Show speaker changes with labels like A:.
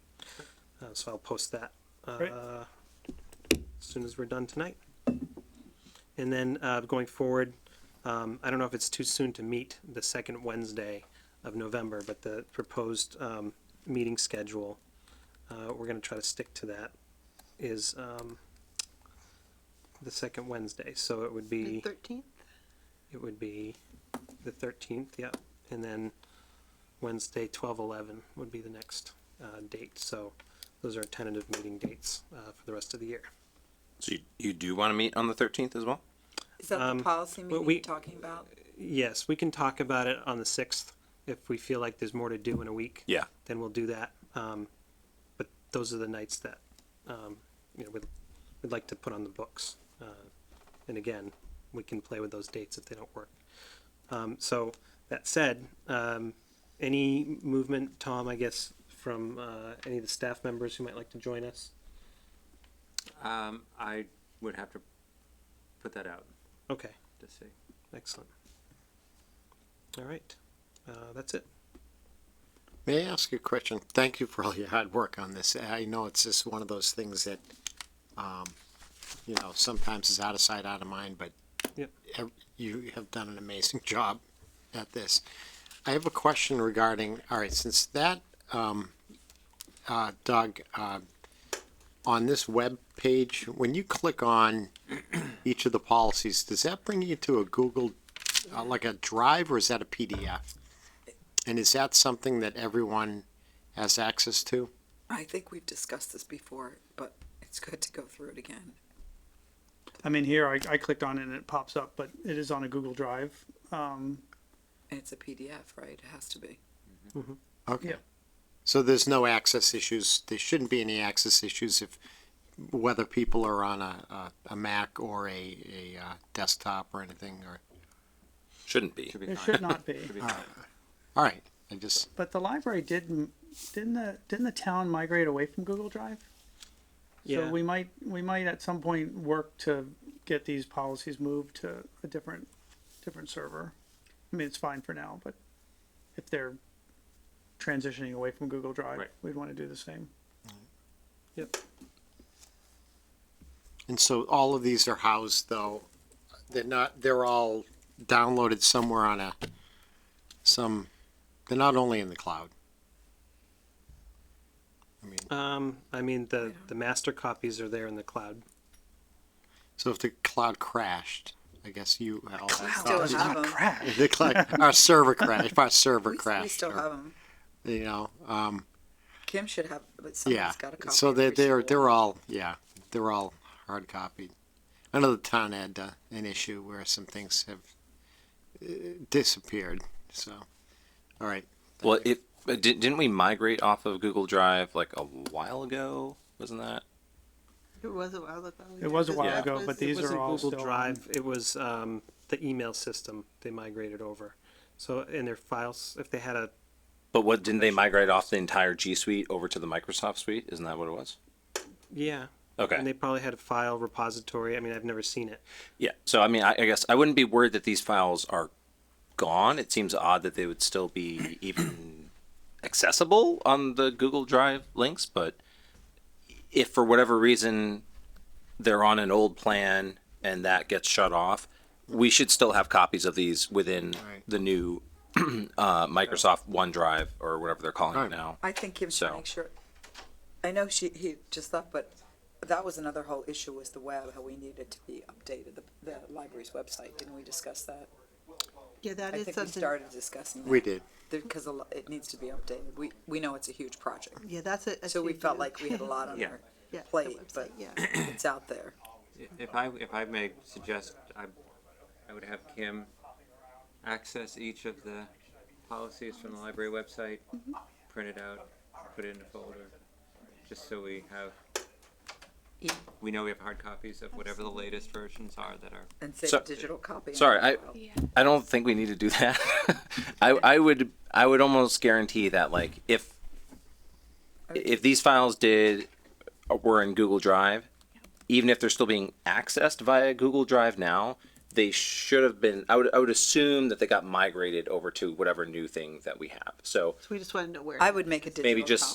A: Uh, so I'll post that uh,
B: Great.
A: as soon as we're done tonight. And then uh, going forward, um, I don't know if it's too soon to meet the second Wednesday of November, but the proposed um, meeting schedule, uh, we're going to try to stick to that, is um, the second Wednesday. So it would be,
C: Thirteenth?
A: it would be the 13th, yep. And then Wednesday, 12/11 would be the next uh, date. So those are tentative meeting dates uh, for the rest of the year.
D: So you, you do want to meet on the 13th as well?
C: Is that
A: Um,
C: the policy
A: well,
C: meeting
A: we-
C: you're talking about?
A: Yes, we can talk about it on the 6th if we feel like there's more to do in a week.
D: Yeah.
A: Then we'll do that. Um, But those are the nights that, um, you know, we'd, we'd like to put on the books. Uh, And again, we can play with those dates if they don't work. Um, So that said, um, any movement, Tom, I guess, from uh, any of the staff members who might like to join us?
E: Um, I would have to put that out
A: Okay,
E: to see.
A: excellent. All right, Uh, that's it.
F: May I ask you a question? Thank you for all your hard work on this. I know it's just one of those things that, um, you know, sometimes is out of sight, out of mind, but
A: Yep.
F: ev- you have done an amazing job at this. I have a question regarding, all right, since that, um, uh, Doug, uh, on this web page, when you click on each of the policies, does that bring you to a Google, uh, like a drive or is that a PDF? And is that something that everyone has access to?
C: I think we've discussed this before, but it's good to go through it again.
B: I mean, here I, I clicked on it and it pops up, but it is on a Google Drive. Um,
C: And it's a PDF, right? It has to be.
F: Okay.
B: Yeah.
F: So there's no access issues. There shouldn't be any access issues if whether people are on a, a, a Mac or a, a uh, desktop or anything. Or
D: Shouldn't be.
E: Should be
B: it
E: fine.
B: should not be.
E: Should be fine.
F: all right, I just
B: But the library didn't didn't the didn't the town migrate away from Google Drive? So
A: Yeah.
B: we might we might at some point work to get these policies moved to a different different server. I mean, it's fine for now, but if they're transitioning away from Google Drive,
E: Right.
B: we'd want to do the same.
A: Yep.
F: and so all of these are housed though. They're not. They're all downloaded somewhere on a some. They're not only in the cloud. I mean,
A: Um, I mean, the, the master copies are there in the cloud.
F: so if the cloud crashed, I guess you all have
C: Still
F: copies.
C: have them.
F: They collect- our server crashed. If our server
C: We,
F: crashed,
C: we still
F: or,
C: have them.
F: you know, um,
C: Kim should have, but
F: yeah.
C: someone's got a copy.
F: So they
C: every
F: they're
C: school.
F: they're all yeah they're all hard copied. I know the town had uh, an issue where some things have uh, disappeared. So, all right,
D: Well, if uh, di- didn't we migrate off of Google Drive like a while ago? Wasn't that?
G: It was a while ago.
B: It was a while
G: Yeah.
B: ago, but
G: It
B: these
A: it
B: are
A: wasn't
B: all
A: Google
B: still on.
A: Drive. It was um, the email system they migrated over. So in their files, if they had a
D: But what didn't they migrate off the entire G Suite over to the Microsoft Suite? Isn't that what it was?
A: yeah,
D: Okay.
A: and they probably had a file repository. I mean, I've never seen it.
D: Yeah. So I mean, I, I guess I wouldn't be worried that these files are gone. It seems odd that they would still be even accessible on the Google Drive links, but if for whatever reason they're on an old plan and that gets shut off, we should still have copies of these within
F: Right.
D: the new uh, Microsoft OneDrive or whatever they're calling
F: Right.
D: it now.
C: I think Kim's trying
D: So-
C: to make sure. I know she, he just left, but that was another whole issue was the web, how we needed to be updated, the, the library's website. Didn't we discuss that?
G: Yeah, that
C: I
G: is
C: think we
G: something,
C: started discussing that.
F: we did.
C: Because it needs to be updated. We, we know it's a huge project.
G: yeah, that's a. a
C: So we
G: to
C: felt
G: do.
C: like we had a lot on
E: Yeah.
C: our
G: Yeah, the
C: plate,
G: website,
C: but
G: yeah.
C: it's out there.
E: If I, if I may suggest, I, I would have Kim access each of the policies from the library website, print it out, put it in a folder, just so we have,
C: Yeah.
E: we know we have hard copies of whatever the latest versions are that are
C: And save
D: So-
C: a digital copy. in
D: sorry,
C: our
D: I-
C: file.
D: I don't think we need to do that. I, I would I would almost guarantee that like if if these files did were in Google Drive, even if they're still being accessed via Google Drive now, they should have been. I would I would assume that they got migrated over to whatever new thing that we have. So
G: So we just want to know where.
C: I would make a digital
D: maybe just